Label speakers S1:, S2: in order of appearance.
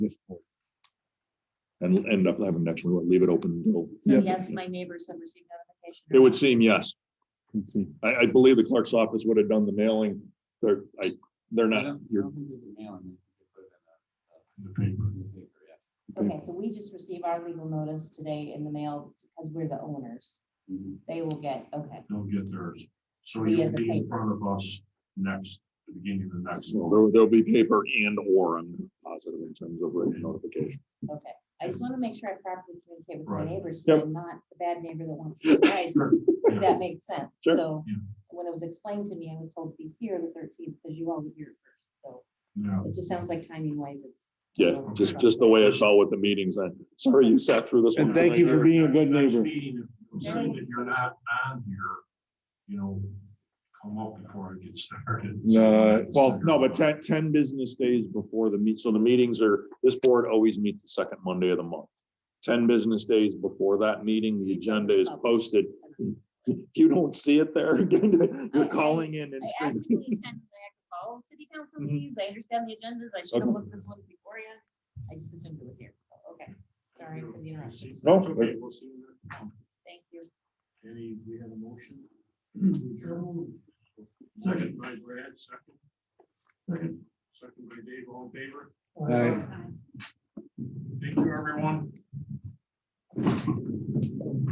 S1: and end up having next one, we'll leave it open. until-
S2: So
S3: Yeah.
S2: yes, my neighbors have received notification.
S1: It would seem, yes.
S3: Let's see.
S1: I, I believe the clerk's office would have done the mailing. They're, I, they're
S4: I
S1: not,
S4: don't- I
S1: you're,
S4: don't think there's a mailing. In the paper. In the paper, yes.
S2: Okay, so we just received our legal notice today in the mail because we're the owners.
S4: Mhm.
S2: They will get, okay,
S5: they'll get theirs. So
S2: We
S5: you
S2: had
S5: will
S2: the
S5: be in
S2: paper.
S5: front of us next, the beginning of the next.
S1: so
S5: month.
S1: there, there'll be paper and or, I'm positive in terms of written notification.
S2: okay. I just want to make sure I properly communicate with my
S5: Right.
S2: neighbors,
S1: Yep.
S2: but I'm not the bad neighbor that wants to surprise them.
S5: Yeah.
S2: That makes sense.
S1: Sure.
S2: So
S5: Yeah.
S2: when it was explained to me, I was told to be here the thirteenth because you all were here first. So
S5: Yeah.
S2: it just sounds like timing wise, it's.
S1: Yeah, just, just the way I saw with the meetings. I, sorry you sat through this one.
S3: And thank you for
S1: tonight.
S3: being a good
S5: Next
S3: neighbor.
S5: meeting, if you see that You're not on here, you know, come up before I get started.
S1: No, well, no, but 10 10 business days before the meet, so the meetings are, this board always meets the second Monday of the month. Ten business days before that meeting, the agenda is posted. If you don't see it there, you're calling in and
S6: I
S1: screaming.
S6: actively attend Niagara Falls City Council
S1: Mhm.
S6: meetings. I understand the agendas. I should have
S1: Okay.
S6: looked this one before you. I just assumed it was here.
S2: Oh, Okay, sorry for the interruption.
S1: No,
S5: Okay, we'll see you next month.
S2: Thank you.
S5: Any, we have a motion? Second by Brad, second. Second. Second by Dave, all in favor?
S3: Aye.
S5: Thank you, everyone.